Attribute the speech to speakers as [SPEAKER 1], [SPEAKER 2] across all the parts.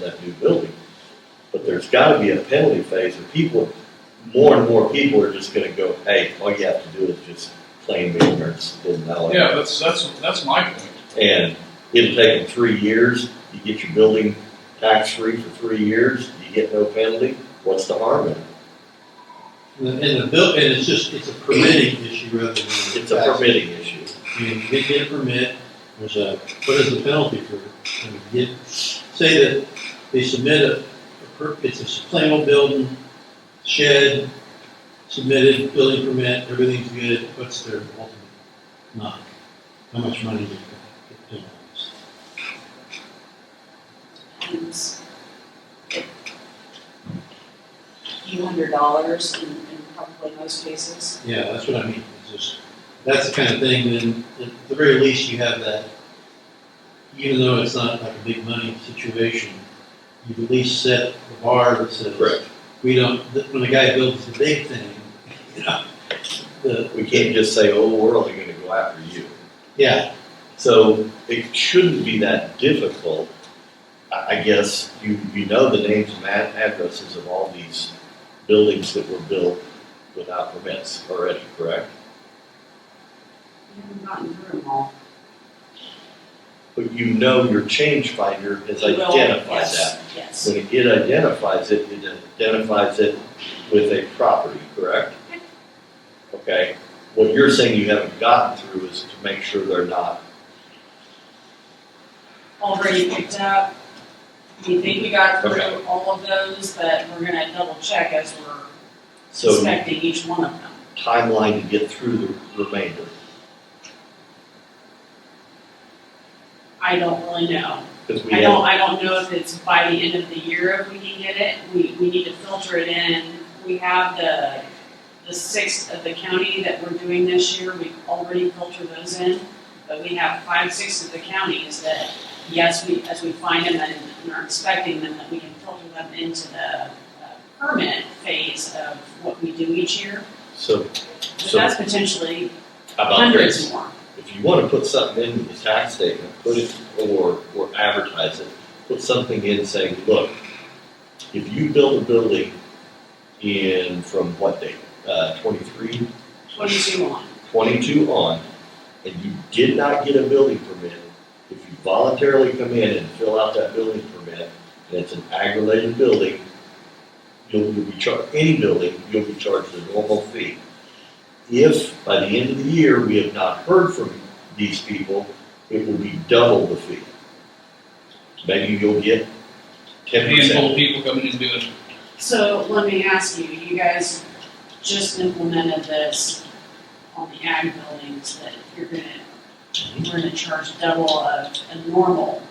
[SPEAKER 1] that new building. But there's gotta be a penalty phase, and people, more and more people are just gonna go, hey, all you have to do is just claim ignorance, didn't know.
[SPEAKER 2] Yeah, that's, that's, that's my point.
[SPEAKER 1] And it'll take them three years, you get your building tax-free for three years, you get no penalty, what's the harm in it?
[SPEAKER 3] And the bill, and it's just, it's a permitting issue rather than.
[SPEAKER 1] It's a permitting issue.
[SPEAKER 3] You can get- get a permit, there's a, what is the penalty for, it? I mean, get, say that they submit a, a per- it's a plain old building, shed, submitted, building permit, everything's good, what's their ultimate knock? How much money do they get?
[SPEAKER 4] and a few hundred dollars in, in probably most cases.
[SPEAKER 3] Yeah, that's what I mean, it's just, that's the kind of thing, then, at the very least, you have that, even though it's not like a big money situation, you at least set the bar that says.
[SPEAKER 1] Correct.
[SPEAKER 3] We don't, th- when the guy builds the big thing, you know, the,
[SPEAKER 1] We can't just say, oh, we're only gonna go after you.
[SPEAKER 3] yeah,
[SPEAKER 1] So it shouldn't be that difficult. I, I guess you, you know the names and ad- addresses of all these buildings that were built without permits already, correct?
[SPEAKER 4] We haven't gotten through them all.
[SPEAKER 1] But you know your change finder has
[SPEAKER 4] We will,
[SPEAKER 1] identified
[SPEAKER 4] yes,
[SPEAKER 1] that.
[SPEAKER 4] Yes,
[SPEAKER 1] When it- it identifies it, it identifies it with a property, correct? Okay, what you're saying you haven't gotten through is to make sure they're not
[SPEAKER 4] already picked up. We think we got
[SPEAKER 1] Okay.
[SPEAKER 4] through all of those, but we're gonna double check as we're
[SPEAKER 1] so
[SPEAKER 4] inspecting each one of them.
[SPEAKER 1] timeline to get through the remainder.
[SPEAKER 4] I don't really know.
[SPEAKER 1] Because we
[SPEAKER 4] I
[SPEAKER 1] have,
[SPEAKER 4] don't, I don't know if it's by the end of the year if we can get it. We, we need to filter it in. We have the, the sixth of the county that we're doing this year. We've already filtered those in. But we have five, six of the counties that, yes, we, as we find them and and are inspecting them, that we can filter them into the uh, permit phase of what we do each year.
[SPEAKER 1] so,
[SPEAKER 4] But
[SPEAKER 1] so
[SPEAKER 4] that's potentially
[SPEAKER 1] how about
[SPEAKER 4] hundreds
[SPEAKER 1] this?
[SPEAKER 4] more.
[SPEAKER 1] If you want to put something into the tax statement, put it, or, or advertise it, put something in saying, look, if you build a building in, from what date? Uh, twenty-three,
[SPEAKER 4] Twenty-two on.
[SPEAKER 1] twenty-two on, and you did not get a building permit, if you voluntarily come in and fill out that building permit, and it's an ag-related building, you'll, you'll be charged, any building, you'll be charged a normal fee. If by the end of the year, we have not heard from these people, it will be double the fee. Maybe you'll get
[SPEAKER 2] A
[SPEAKER 1] ten
[SPEAKER 2] handful
[SPEAKER 1] percent.
[SPEAKER 2] of people coming in and doing, it.
[SPEAKER 4] So let me ask you, you guys just implemented this on the ag buildings that you're gonna,
[SPEAKER 1] Mm-hmm.
[SPEAKER 4] we're gonna charge double of a normal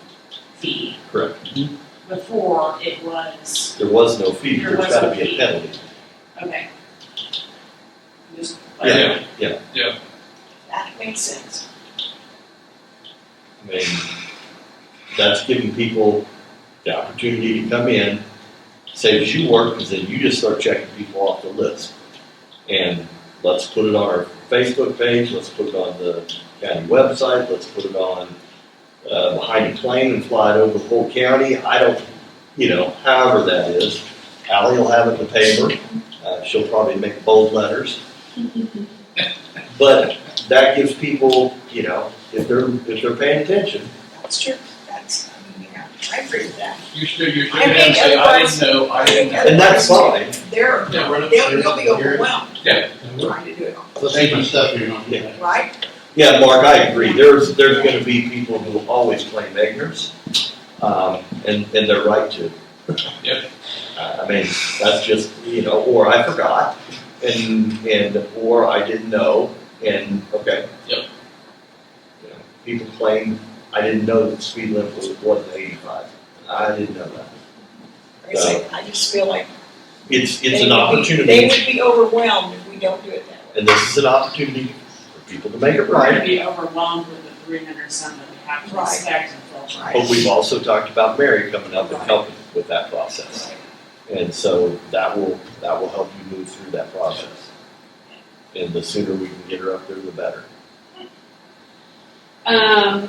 [SPEAKER 4] fee.
[SPEAKER 1] Correct. Mm-hmm.
[SPEAKER 4] Before it was,
[SPEAKER 1] There was no fee,
[SPEAKER 4] There
[SPEAKER 1] there's
[SPEAKER 4] was
[SPEAKER 1] gotta
[SPEAKER 4] no
[SPEAKER 1] be a
[SPEAKER 4] fee.
[SPEAKER 1] penalty.
[SPEAKER 4] okay. Just-
[SPEAKER 1] Yeah, yeah.
[SPEAKER 4] That makes sense.
[SPEAKER 1] I mean, that's giving people the opportunity to come in, saves you work, because then you just start checking people off the list. And let's put it on our Facebook page, let's put it on the county website, let's put it on, uh, behind a plane and fly it over the whole county, I don't, you know, however that is. Ally will have it in the paper, uh, she'll probably make bold letters. But that gives people, you know, if they're, if they're paying attention,
[SPEAKER 5] That's true, that's, I mean, yeah, I agree with that.
[SPEAKER 2] you should, you should
[SPEAKER 5] I
[SPEAKER 2] have
[SPEAKER 5] think
[SPEAKER 2] say, I didn't
[SPEAKER 5] otherwise-
[SPEAKER 2] know, I didn't know.
[SPEAKER 1] And that's fine.
[SPEAKER 5] They're,
[SPEAKER 2] Yeah,
[SPEAKER 5] they'll, they'll be overwhelmed
[SPEAKER 3] and we're-
[SPEAKER 5] trying to do it, all,
[SPEAKER 3] let's see my stuff here, don't
[SPEAKER 1] Yeah.
[SPEAKER 5] right?
[SPEAKER 1] Yeah, Mark, I agree. There's, there's gonna be people who will always claim ignorance, um, and, and they're right to.
[SPEAKER 2] Yep.
[SPEAKER 1] I I mean, that's just, you know, or I forgot, and, and, or I didn't know, and, okay.
[SPEAKER 2] Yep.
[SPEAKER 1] You know, People claim, I didn't know that speed limit was more than eighty-five. I didn't know that.
[SPEAKER 5] I say, I just feel like.
[SPEAKER 1] It's,
[SPEAKER 5] they
[SPEAKER 1] it's an
[SPEAKER 5] would be- They
[SPEAKER 1] opportunity,
[SPEAKER 5] would be overwhelmed if we don't do it that way.
[SPEAKER 1] and this is an opportunity for people to make it
[SPEAKER 4] We're
[SPEAKER 1] right.
[SPEAKER 4] gonna be overwhelmed with the three hundred some that we have to
[SPEAKER 5] Right.
[SPEAKER 4] inspect and filter.
[SPEAKER 5] Right.
[SPEAKER 1] But we've also talked about Mary coming up and helping with that process. And so that will, that will help you move through that process. And the sooner we can get her up there, the better.
[SPEAKER 4] Um,